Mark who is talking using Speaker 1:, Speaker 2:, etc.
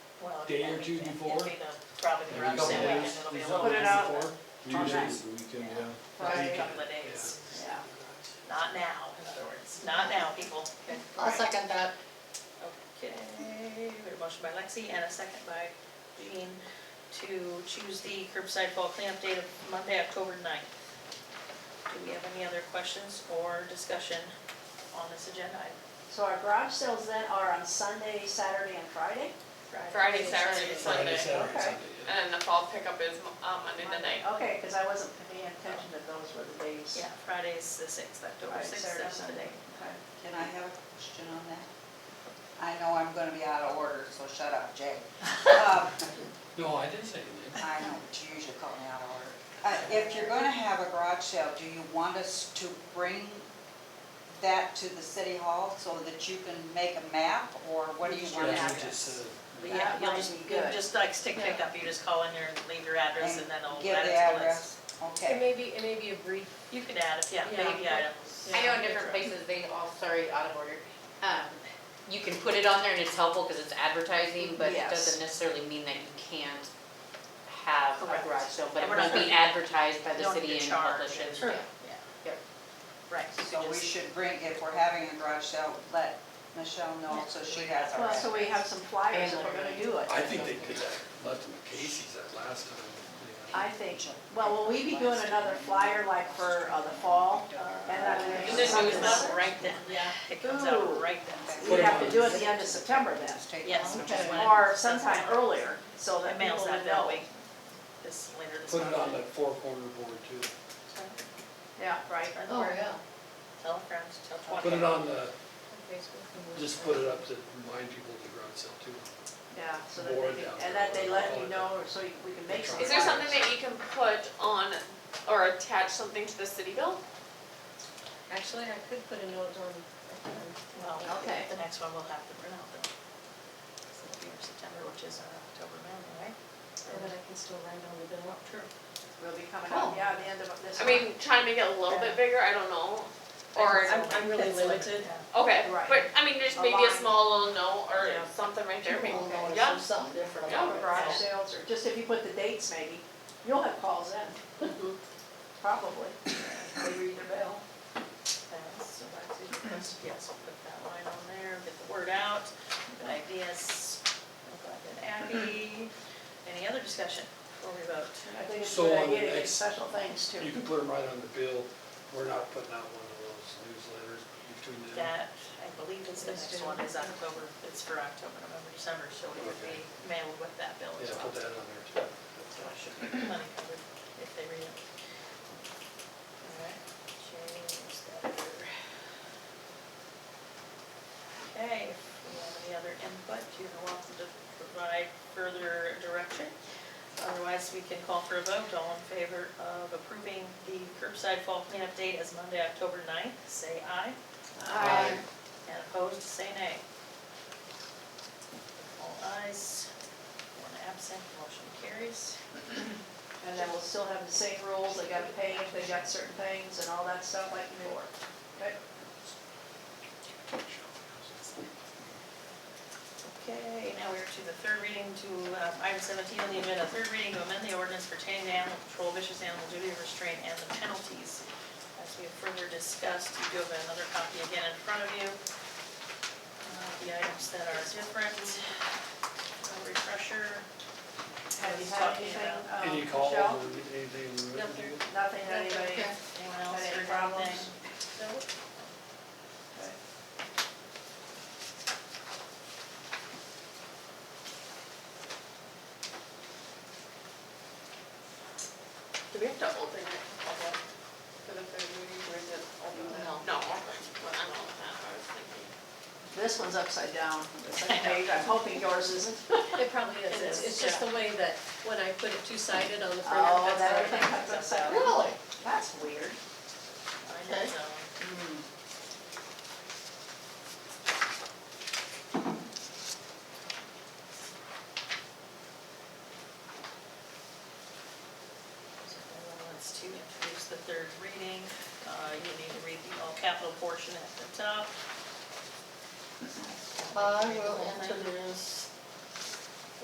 Speaker 1: day or two before?
Speaker 2: It'd be the, probably the garage sale weekend, it'll be a little
Speaker 3: Put it out.
Speaker 1: Usually it's the weekend, yeah.
Speaker 2: a
Speaker 3: Right,
Speaker 2: couple of days.
Speaker 3: yeah.
Speaker 2: Not now, in other words, not now, people.
Speaker 4: I'll second that.
Speaker 2: Okay, we have a motion by Lexi and a second by Jean to choose the curbside fall cleanup date of Monday, October 9th. Do we have any other questions or discussion on this agenda item?
Speaker 3: So our garage sales then are on Sunday, Saturday, and Friday?
Speaker 5: Friday, Saturday,
Speaker 1: Friday,
Speaker 5: Sunday.
Speaker 1: Saturday,
Speaker 3: Okay.
Speaker 1: Sunday, yeah.
Speaker 5: And then the fall pickup is um, Monday the night.
Speaker 3: Okay, because I wasn't paying attention that those were the days.
Speaker 2: Yeah, Friday's the 6th, October
Speaker 3: Friday,
Speaker 2: 6th,
Speaker 3: Saturday,
Speaker 2: that's the
Speaker 3: Sunday.
Speaker 2: day.
Speaker 3: Okay.
Speaker 6: Can I have a question on that? I know I'm gonna be out of order, so shut up, Jay. Uh,
Speaker 1: No, I didn't say anything.
Speaker 6: I know, but you usually call me out of order. Uh, If you're gonna have a garage sale, do you want us to bring that to the city hall so that you can make a map, or what do you want?
Speaker 1: That's what
Speaker 6: to
Speaker 1: it
Speaker 6: do?
Speaker 1: said.
Speaker 2: Yeah, you'll
Speaker 3: might
Speaker 2: just,
Speaker 3: be
Speaker 2: you'll
Speaker 3: good.
Speaker 2: just like stick
Speaker 3: Yeah.
Speaker 2: pickup, you just call in there and leave your address and then it'll
Speaker 6: Give
Speaker 2: add it
Speaker 6: the
Speaker 2: to the list.
Speaker 6: address,
Speaker 7: It
Speaker 6: okay.
Speaker 7: may be, it may be a brief.
Speaker 2: You could add it, yeah,
Speaker 7: Yeah.
Speaker 2: baby items.
Speaker 8: I know in different places, they all, sorry, out of order. Um, You can put it on there and it's helpful because it's advertising, but it
Speaker 3: Yes.
Speaker 8: doesn't necessarily mean that you can't have
Speaker 2: Correct.
Speaker 8: a garage sale, but it
Speaker 2: And we're not
Speaker 8: won't be advertised by
Speaker 2: You
Speaker 8: the
Speaker 2: don't
Speaker 8: city
Speaker 2: need to
Speaker 8: and
Speaker 2: charge
Speaker 8: published.
Speaker 2: and-
Speaker 8: Yeah.
Speaker 2: yeah.
Speaker 8: Yep.
Speaker 2: Right. you
Speaker 6: So we
Speaker 2: just-
Speaker 6: should bring, if we're having a garage sale, let Michelle know so she has our
Speaker 3: Well, so we have some flyers if we're gonna do it.
Speaker 1: I think they did that, left them at Casey's that last time. yeah.
Speaker 3: I think, well, will we be doing another flyer like for uh, the fall? And then
Speaker 2: You
Speaker 3: we
Speaker 2: just use that right then, it comes
Speaker 3: Ooh.
Speaker 2: out right then.
Speaker 3: We'd have to do it the end of September then.
Speaker 6: Just take
Speaker 2: Yes,
Speaker 6: one.
Speaker 2: which is when. it-
Speaker 3: Or sometime earlier, so
Speaker 2: The
Speaker 3: that
Speaker 2: mail's
Speaker 3: people
Speaker 2: out
Speaker 3: would
Speaker 2: that
Speaker 3: know.
Speaker 2: way, this, later this
Speaker 1: Put
Speaker 2: month.
Speaker 1: it on that four corner board too.
Speaker 3: Yeah, right.
Speaker 2: Oh, yeah. Tell friends, tell twenty.
Speaker 1: Put it on the,
Speaker 7: Facebook.
Speaker 1: just put it up to remind people of the garage sale too.
Speaker 3: Yeah, so that
Speaker 1: Board
Speaker 3: they,
Speaker 1: down
Speaker 3: can- and that they
Speaker 1: there.
Speaker 3: let you know, so you- we can make some.
Speaker 5: Is there something that you can put on or attach something to the city bill?
Speaker 7: Actually, I could put a note on, um,
Speaker 2: Well,
Speaker 3: Okay.
Speaker 2: the next one we'll have to print out then. So it'll be in September, which is our October mailing, right?
Speaker 7: and then I can still write on the bill. True.
Speaker 3: Will be coming up, yeah, the end of this
Speaker 5: I
Speaker 3: month.
Speaker 5: mean, try and make it a little bit bigger, I don't know. Or,
Speaker 7: I'm, I'm really
Speaker 2: That's like-
Speaker 7: limited.
Speaker 2: yeah.
Speaker 5: okay,
Speaker 3: Right.
Speaker 5: but I mean, there's
Speaker 3: A
Speaker 5: maybe a
Speaker 3: line.
Speaker 5: small little note or
Speaker 2: Yeah.
Speaker 5: something right there, maybe.
Speaker 3: People will
Speaker 5: Yeah.
Speaker 4: something different
Speaker 5: Yeah.
Speaker 3: Or garage sales, or just if you put the dates maybe, you'll have calls in. Probably. They read their bill.
Speaker 2: Yes, so that's it. Yes, we'll put that line on there, get the word out, good ideas. I'm glad that Abby, E. any other discussion before we vote?
Speaker 3: I think it's a
Speaker 1: So
Speaker 3: good
Speaker 1: on the
Speaker 3: idea to get
Speaker 1: next-
Speaker 3: special things
Speaker 1: You
Speaker 3: too.
Speaker 1: can put them right on the bill. We're not putting out one of those newsletters between them.
Speaker 2: That, I believe is the next one, is October, it's for October, November, December, so we would be mailed with that bill as
Speaker 1: Yeah,
Speaker 2: well.
Speaker 1: put that on there too.
Speaker 2: So I should be plenty covered if they read it. Alright, change that. Okay, if you have any other input, you're welcome to provide further direction. Otherwise, we can call for a vote, all in favor of approving the curbside fall cleanup date as Monday, October 9th, say aye.
Speaker 1: Aye.
Speaker 2: And opposed, say nay. All ayes, one absent, motion carries.
Speaker 3: And then we'll still have the same rules, they gotta pay if they got certain things and all that stuff like before. Okay?
Speaker 2: Okay, now we're to the third reading to, uh, item seventeen on the agenda, third reading to amend the ordinance pertaining to animal control, vicious animal duty restraint, and the penalties. As we have further discussed, you do have another copy again in front of you. Uh, The items that are different, a refresher.
Speaker 3: Have you
Speaker 2: He's
Speaker 3: had
Speaker 2: talking
Speaker 3: anything,
Speaker 2: about-
Speaker 3: um,
Speaker 1: Any calls
Speaker 3: Michelle?
Speaker 1: or anything
Speaker 2: Nope.
Speaker 1: written to you?
Speaker 3: Nothing, anybody?
Speaker 2: Anyone else? or
Speaker 3: Had any
Speaker 2: anything?
Speaker 3: problems?
Speaker 2: Nope. Okay.
Speaker 5: Do we have to open it public for the third reading, or is it open?
Speaker 8: No.
Speaker 5: No, okay, well, I don't know what that, I was thinking.
Speaker 3: This one's upside down, the second page, I'm hoping yours isn't.
Speaker 7: It probably is, it's, it's just the way that when I put it two-sided on the front.
Speaker 3: Oh,
Speaker 7: that's
Speaker 3: that
Speaker 7: how
Speaker 3: everything
Speaker 7: it
Speaker 3: comes
Speaker 7: comes
Speaker 3: upside
Speaker 7: out.
Speaker 3: down.
Speaker 4: Really?
Speaker 3: That's weird.
Speaker 2: I know, Hmm. so. So if anyone wants to introduce the third reading, uh, you need to read the all capital portion at the top.
Speaker 4: I will introduce